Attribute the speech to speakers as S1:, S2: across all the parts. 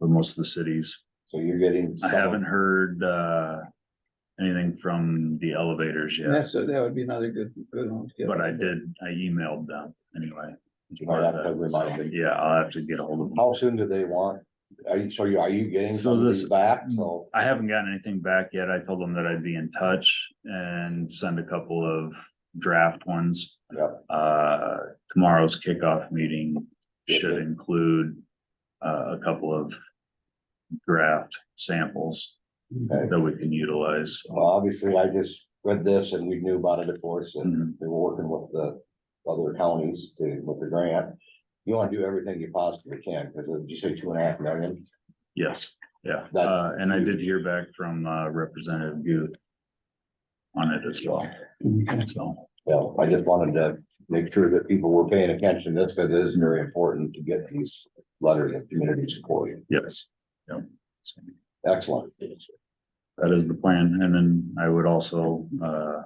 S1: most of the cities.
S2: So you're getting.
S1: I haven't heard, uh, anything from the elevators
S3: And
S1: yet,
S3: that's, that would be another good, good one. to get.
S1: but I did, I emailed them anyway.
S2: You might have to remind me.
S1: Yeah, I'll have to get a hold of them.
S2: How soon do they want? Are you, so you, are you getting
S1: So this- Mm.
S2: something back? So,
S1: I haven't gotten anything back yet. I told them that I'd be in touch and send a couple of draft ones.
S2: Yep.
S1: Uh, tomorrow's kickoff meeting
S2: Yep,
S1: should
S2: yep.
S1: include, uh, a couple of draft samples
S2: okay.
S1: that we can utilize.
S2: well, obviously I just read this and we knew about it, of course, and
S1: Mhm.
S2: they were working with the other counties to, with the grant. You wanna do everything you possibly can, because you say two and a half million,
S1: Yes, yeah,
S2: That's
S1: uh, and I did hear back from uh Representative Butte. On it as well, so,
S2: well, I just wanted to make sure that people were paying attention to this, because it is very important to get these letters of community support.
S1: yes. Yep. So
S2: Excellent.
S1: That is the plan, and then I would also uh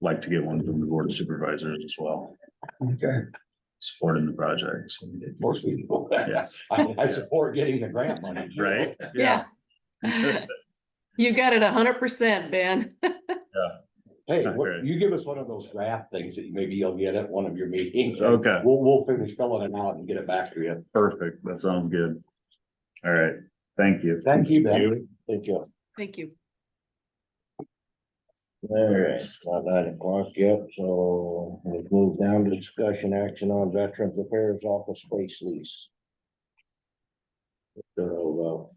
S1: like to get one from the board of supervisors as well,
S3: Okay,
S1: supporting the project. so,
S2: Of course we do.
S1: Yes,
S2: I, I support getting the grant money. too.
S1: right?
S4: Yeah. You got it a hundred percent, Ben.
S2: Hey,
S1: Not
S2: what-
S1: great.
S2: you give us one of those draft things that maybe you'll get at one of your meetings. and
S1: Okay,
S2: We'll, we'll finish filling it out and get it back to you.
S1: perfect, that sounds good. All right, thank you.
S2: Thank you, Ben. Thank you.
S4: Thank you.
S5: All right, not nine o'clock yet, so we've moved down to discussion action on Veterans Affairs Office Space Lease. So, uh,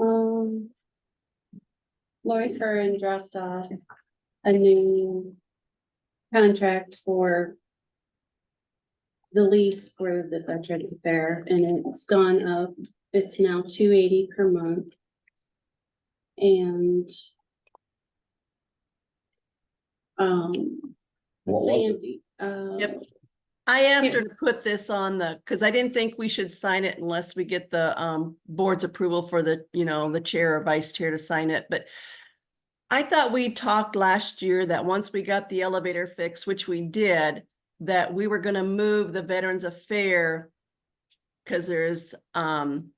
S6: Um. Lori Curran dropped off a new contract for. The lease for the Veterans Affair and it's gone up, it's now two eighty per month. And. Um,
S2: What was it?
S6: Sandy, uh.
S4: Yep. I asked her to put this on the, because I didn't think we should sign it unless we get the um board's approval for the, you know, the chair or vice chair to sign it, but. I thought we talked last year that once we got the elevator fixed, which we did, that we were gonna move the Veterans Affair. Cause there's um.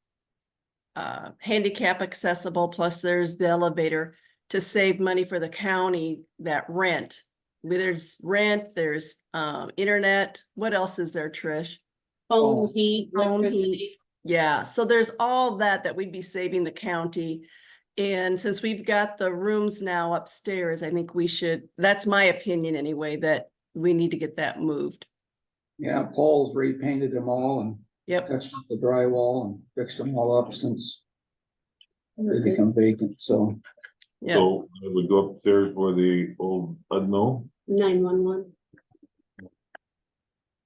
S4: Uh, handicap accessible, plus there's the elevator to save money for the county that rent. There's rent, there's um internet, what else is there, Trish?
S6: Phone, heat,
S4: Phone, heat.
S6: electricity.
S4: Yeah, so there's all that that we'd be saving the county. And since we've got the rooms now upstairs, I think we should, that's my opinion anyway, that we need to get that moved.
S3: yeah, Paul's repainted them all and
S4: Yep,
S3: touched up the drywall and fixed them all up since they become vacant, so.
S4: yeah,
S7: So it would go upstairs where the old unknown,
S6: nine one one.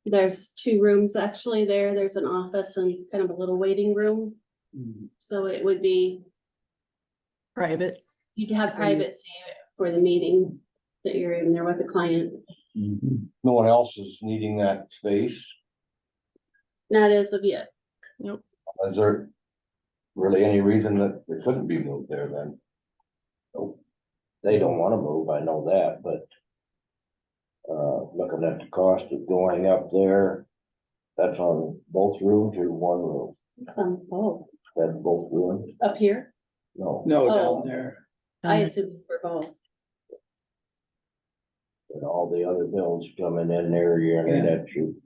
S6: There's two rooms actually there. There's an office and kind of a little waiting room,
S3: mm,
S6: so it would be,
S4: private.
S6: you'd have privacy for the meeting that you're in there with the client.
S3: mhm.
S2: No one else is needing that space?
S6: Not as of yet.
S2: Is there really any reason that it couldn't be moved there then?
S5: they don't wanna move, I know that, but. Uh, looking at the cost of going up there, that's on both rooms or one room,
S6: It's on- oh,
S5: that's both rooms,
S6: up here?
S5: no,
S3: No,
S6: Oh.
S3: down there,
S6: I
S4: Um,
S6: assume for both.
S5: and all the other bills coming in there, you're, in that you,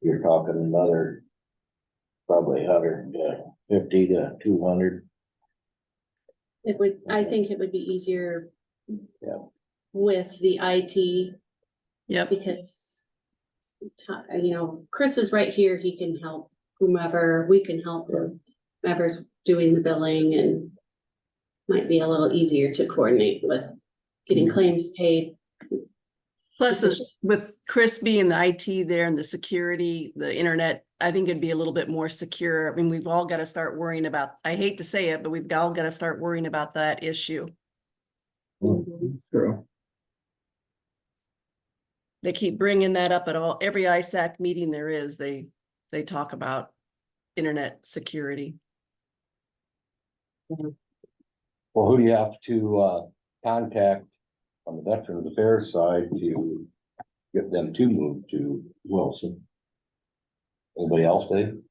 S5: you're talking another. Probably hundred, uh, fifty to two hundred.
S6: It would, I think it would be easier.
S5: Yeah.
S6: With the IT
S4: Yep,
S6: because ti- you know, Chris is right here, he can help whomever, we can help whomever's doing the billing and might be a little easier to coordinate with getting claims paid.
S4: plus uh, with Chris being the IT there and the security, the internet, I think it'd be a little bit more secure. I mean, we've all got to start worrying about, I hate to say it, but we've all got to start worrying about that issue.
S3: true.
S4: They keep bringing that up at all, every ISAC meeting there is, they, they talk about internet security.
S2: Well, who do you have to, uh, contact on the Veterans Affairs side to get them to move to Wilson? Anybody else, Dave?